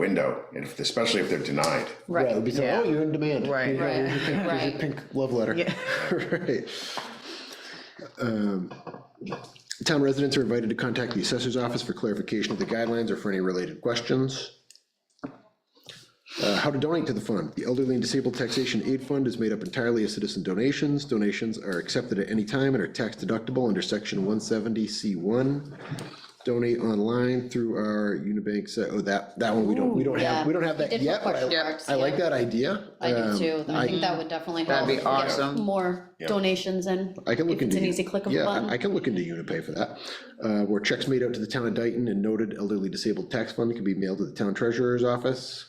window, and if- especially if they're denied. Right, It would be, so, yeah. oh, you're in demand. Right. You know, Right. here's your pink- here's your Right. Pink love letter. Yeah. Right. Um, Town residents are invited to contact the assessor's office for clarification of the guidelines or for any related questions. Uh, How to donate to the fund. The Elderly and Disabled Taxation Aid Fund is made up entirely of citizen donations. Donations are accepted at any time and are tax deductible under section 170C1. Donate online through our Unibank, site. oh, that, that one, we don't, we don't have, Yeah. we don't have We that did yet, put but I- question marks, I like yeah. that idea. I do Um, too, I think that would definitely help. That'd be get awesome. More donations and I can look if it's into. an easy click of a yeah, I- I button. can look into Unipay for that. Uh, Where checks made out to the town of Dayton and noted elderly disabled tax fund can be mailed to the town treasurer's office.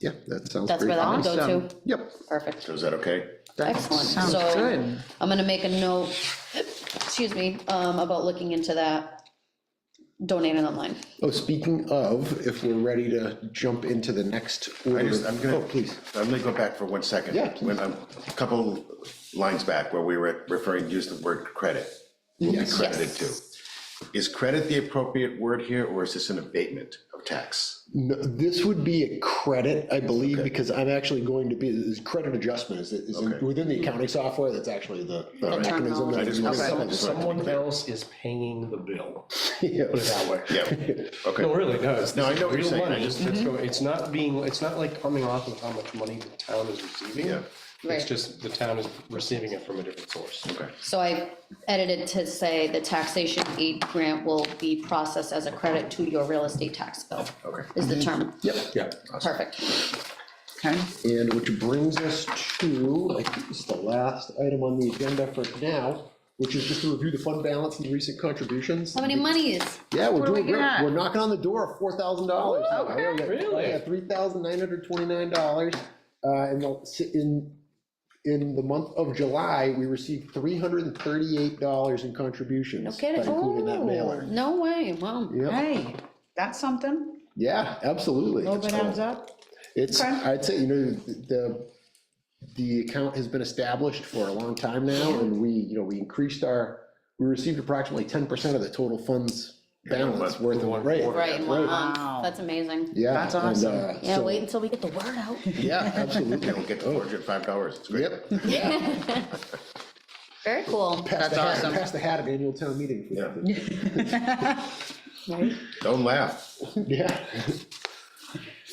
Yeah, that sounds That's where great. that would go Awesome. to, Yep, perfect, So is that okay? excellent. sounds So good. I'm gonna make a note, excuse me, um, about looking into that, donating online. oh, speaking of, if we're ready to jump into the next. order just- of- I'm gonna- Oh, please, I'm gonna Uh, go back for one second. Yeah, please. When I'm, a couple lines back where we were referring, used the word credit. Will be Yes. credited to. Is credit the appropriate word here, or is this an abatement of tax? No, this would be a credit, I believe, because I'm actually going to be, is credit adjustment, is, is in- Okay. within the accounting software, that's actually the the Alright. mechanism. I just wanted- that- just wanted to be Someone clear. else is paying the bill, Yeah. put it that way. Yeah, okay. No, really, no, it's No, I know what you're real saying, I money. just- that's go- It's not being, it's not like coming off of how much money the town is receiving. Yeah. Right. It's just the town is receiving it from a different source. Okay. So I edited to say the taxation aid grant will be processed as a credit to your real estate tax bill. Okay. Is the term, Yeah. perfect, Mm-hmm. Okay, And which brings us to, I think this is the last item on the agenda for now, which is just to review the fund balance and recent contributions. how many monies? Yeah, we're What do we doing great. got? We're knocking on the door of four thousand dollars. okay. Really? Three thousand nine hundred twenty-nine dollars. Uh, in the, in, in the month of July, we received three hundred and thirty-eight dollars in contributions. No kidding, by including that Ooh. mailer. Oh, no way, wow. Yep. hey, that's something, Yeah, a absolutely. little bit It's cool. adds up. It's, Okay. I'd say, you know, the, the account has been established for a long time now, and we, you know, we increased our, we received approximately ten percent of the total funds balance but- worth of, right, Right, in one month, Right. Wow. that's amazing. yeah. That's and, awesome. uh, Yeah, so- wait until we get the word out. Yeah, absolutely. We'll get to four hundred and five dollars, it's great. Yep. Very cool. Pass the That's hat- awesome. Pass the hat at annual town meeting. Yeah. Right? Don't laugh. Yeah.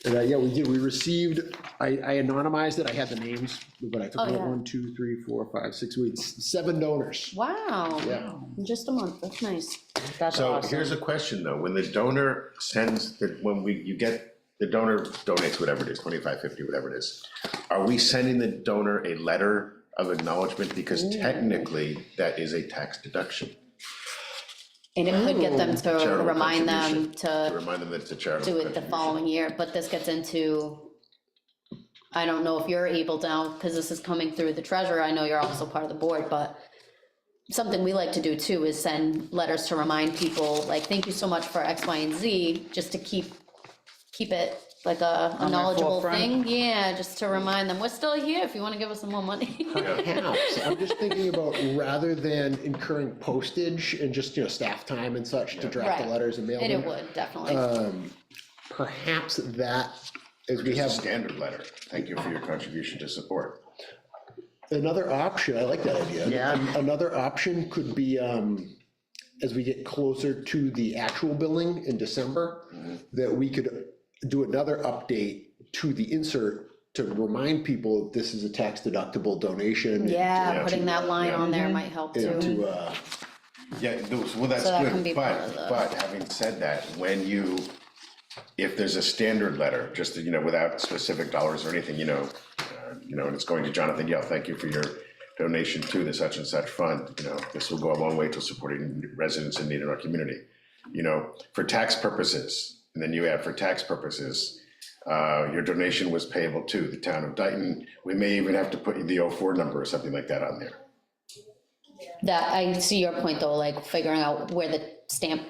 And, uh, yeah, we did, we received, I, I anonymized it, I had the names, but I took Oh, out yeah. one, two, three, four, five, six weeks, seven donors. Wow. Yeah. In Just a month, that's nice. That's So awesome. here's a question, though, when the donor sends, the when we, you get, the donor donates whatever it is, twenty-five, fifty, whatever it is, are we sending the donor a letter of acknowledgement, because technically, that is a tax deduction, And it could get them to Charitable remind them contribution. to to remind them that it's a charitable do it the contribution. following year, but this gets into, I don't know if you're able to, because this is coming through the treasurer, I know you're also part of the board, but something we like to do too is send letters to remind people, like, thank you so much for X, Y, and Z, just to keep, keep it like a a their knowledgeable forefront. thing. Yeah, just to remind them, we're still here if you want to give us some more money. Perhaps, I'm just thinking about, rather than incurring postage and just, you know, staff time and such to draft Right. the letters and mail And it them. would, definitely. Uh, Perhaps that, as we Just a have standard letter, thank you for your contribution to support. Another option, I like that idea. Yeah. Another option could be, um, as we get closer to the actual billing in December, that we could do another update to the insert to remind people this is a tax deductible donation. Yeah, Yeah. putting that line on there might help And too. to, uh, Yeah, those, well, that's So that can be good, part of the- but, but having said that, when you, if there's a standard letter, just, you know, without specific dollars or anything, you know, uh, you know, and it's going to Jonathan Yell, thank you for your donation to the such and such fund, you know, this will go a long way to supporting residents in need in our community. You know, for tax purposes, and then you add for tax purposes, uh, your donation was payable to the town of Dayton. We may even have to put the 04 number or something like that on there. That, I see your point though, like figuring out where the stamp,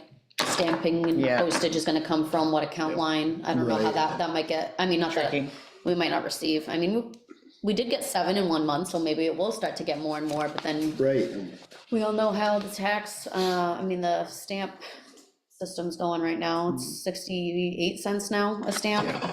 stamping and Yeah. postage is gonna come from, what account line. I don't know how Right. that, that might get, I mean, not that, Tricky. we might not receive. I mean, we- we did get seven in one month, so maybe it will start to get more and more, but then right, we all know how the tax, uh, I mean, Mm. the stamp system's going right now. It's sixty-eight cents now a stamp.